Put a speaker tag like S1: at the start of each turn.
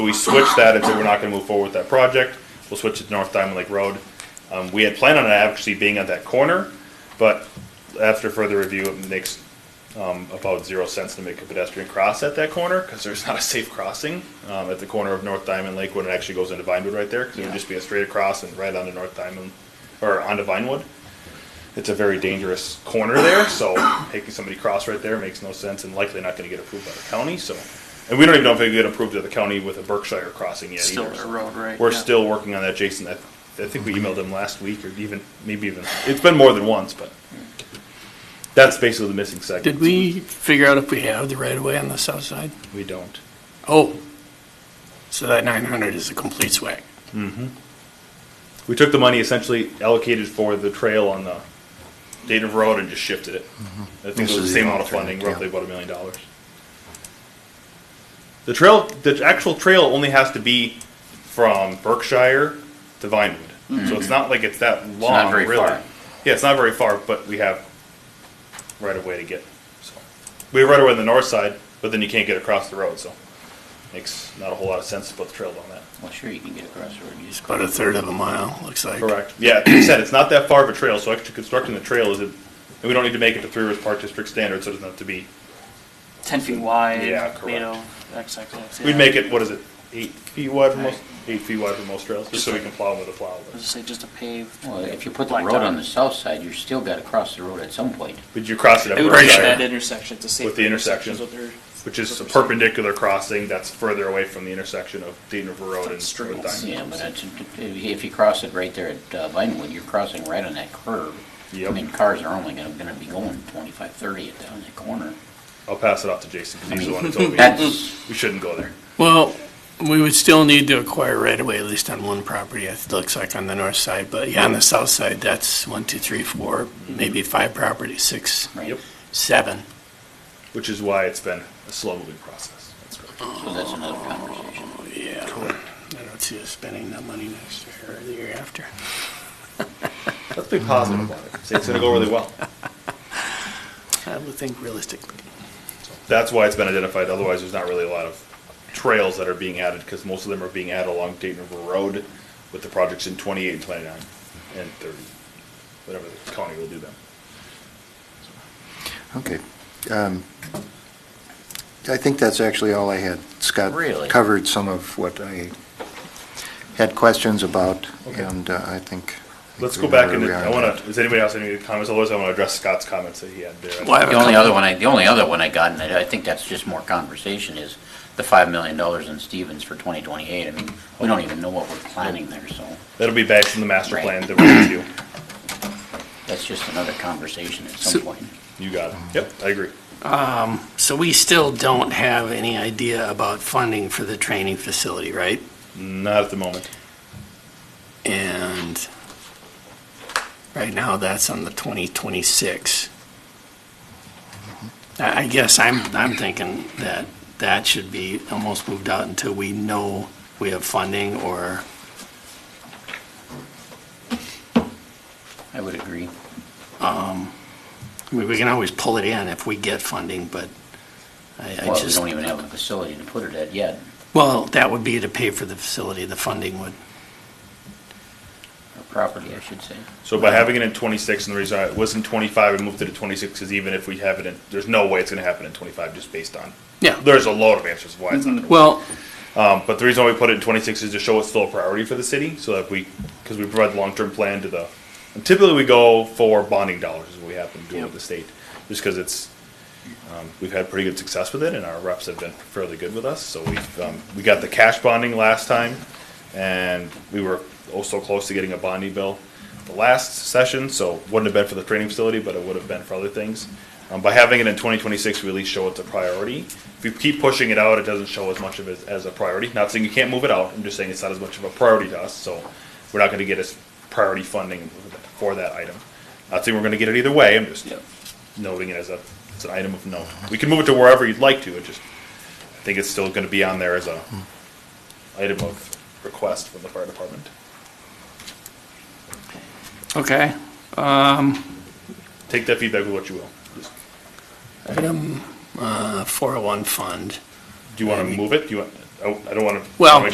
S1: We switched that and said we're not gonna move forward with that project. We'll switch it to North Diamond Lake Road. Um, we had planned on it actually being at that corner, but after further review, it makes, um, about zero sense to make a pedestrian cross at that corner, cause there's not a safe crossing, um, at the corner of North Diamond Lake when it actually goes into Vinewood right there, cause it would
S2: Yeah.
S1: just be a straight across and right onto North Diamond, or onto Vinewood. It's a very dangerous corner there, so making somebody cross right there makes no sense and likely not gonna get approved by the county, so. And we don't even know if it get approved to the county with a Berkshire crossing yet
S2: Still
S1: either.
S2: their
S1: so.
S2: road, right?
S1: We're
S2: Yeah.
S1: still working on that, Jason. I, I think we emailed him last week or even, maybe even, it's been more than once, but
S2: Hmm.
S1: that's basically the missing segment.
S3: Did we figure out if we have the right of way on the south side?
S1: We don't.
S3: Oh, so that nine hundred is a complete swag.
S1: We took the money essentially allocated for the trail on the native road and just shifted it. I think
S4: This
S1: it was
S4: is
S1: the same
S4: the
S1: amount of funding,
S4: alternate, yeah.
S1: roughly about a million dollars. The trail, the actual trail only has to be from Berkshire to Vinewood, so it's not like it's that long,
S2: very
S1: really.
S2: far.
S1: Yeah, it's not very far, but we have right of way to get, so. We have right of way on the north side, but then you can't get across the road, so makes not a whole lot of sense to put the trail on that.
S2: Well, sure, you can get across the road, you just.
S3: About a third of a mile, looks like.
S1: Correct. Yeah, like you said, it's not that far of a trail, so actually constructing the trail is, and we don't need to make it to Three Rivers Park District standard, so it doesn't have to be,
S2: Ten feet wide.
S1: Yeah, correct.
S2: Made of X, X, X. yeah.
S1: we'd make it, what is it, eight feet wide for most,
S2: Right.
S1: eight feet wide for most trails, just so we can plow them with a plow.
S2: Let's just say just a paved.
S5: Well, if you put the
S2: black
S5: road on
S2: dot.
S5: the south side, you're still gotta cross the road at some point.
S1: But you cross it at
S2: It would be
S3: Right.
S2: that
S1: Berkshire,
S2: intersection, it's a safe.
S1: With the intersection, which is a perpendicular crossing that's further away from the intersection of Dayton River Road and
S2: Straight.
S1: Wood Diamond.
S5: Yeah, but it's, if you cross it right there at uh, Vinewood, you're crossing right on that curve. I
S1: Yep.
S5: mean, cars are only gonna, gonna be going twenty-five, thirty at that, on that corner.
S1: I'll pass it off to Jason, because he's the one who told me,
S5: That's,
S1: we shouldn't go there.
S3: Well, we would still need to acquire right of way, at least on one property, it looks like on the north side, but yeah, on the south side, that's one, two, three, four, maybe five properties, six,
S5: right,
S1: Yep,
S3: seven.
S1: which is why it's been a slow-moving process. That's right.
S5: so that's another conversation.
S3: Oh, Yeah, I don't see us spending that money next year or the year after.
S1: Let's be positive about it, say it's gonna go really well.
S3: I would think realistically.
S1: That's why it's been identified, otherwise there's not really a lot of trails that are being added, because most of them are being added along Dayton River Road with the projects in twenty-eight and twenty-nine and thirty, whatever the county will do them.
S4: Okay. um, I think that's actually all I had. Scott
S5: Really?
S4: covered some of what I had questions about,
S1: Okay.
S4: and uh, I think.
S1: Let's
S4: we
S1: go
S4: know
S1: back
S4: where
S1: into,
S4: we are
S1: I wanna, does anybody else have any comments, otherwise I wanna address Scott's comments that he had there.
S3: Well, I have a
S5: The only
S3: couple-
S5: other one, I, the only other one I got, and I I think that's just more conversation, is the five million dollars in Stevens for twenty twenty-eight. I mean, we don't even know what we're planning there, so
S1: That'll be back in the master
S5: Right.
S1: plan that we review,
S5: that's just another conversation at
S3: So-
S5: some point.
S1: you got it, yep, I agree.
S3: So we still don't have any idea about funding for the training facility, right?
S1: Not at the moment,
S3: And right now, that's on the 2026. I I guess I'm, I'm thinking that that should be almost moved out until we know we have funding or,
S5: I would agree.
S3: I mean, we can always pull it in if we get funding, but I I
S5: Well, we
S3: just,
S5: don't even have a facility to put it at yet.
S3: well, that would be to pay for the facility, the funding would.
S5: Or property, I should say.
S1: so by having it in twenty-six, and the reason it was in twenty-five, we moved it to twenty-six, is even if we have it in, there's no way it's gonna happen in twenty-five, just based on
S3: Yeah, Mm-hmm.
S1: There's a lot of answers why it's not gonna work.
S3: well,
S1: Um, but the reason why we put it in twenty-six is to show it's still a priority for the city, so that we, because we provide the long-term plan to the, and typically we go for bonding dollars, is what we have been doing with the state, just because it's, um, we've had pretty good success with it, and our reps have been fairly good with us, so we've, um, we got the cash bonding last time, and we were oh so close to getting a bonding bill the last session, so wouldn't have been for the training facility, but it would have been for other things. Um, by having it in twenty twenty-six, we at least show it's a priority. If you keep pushing it out, it doesn't show as much of it as a priority. Not saying you can't move it out, I'm just saying it's not as much of a priority to us, so we're not gonna get as priority funding for that item. Not saying we're gonna get it either way, I'm just noting it as a, it's an item of note. We can move it to wherever you'd like to, it just, I think it's still gonna be on there as a item of request from the fire department.
S3: okay.
S1: Take that feedback with what you will. Just-
S3: Item uh, 401 fund.
S5: oh
S1: Do you wanna move it? Do you want, I, I don't wanna.
S3: Well,
S1: make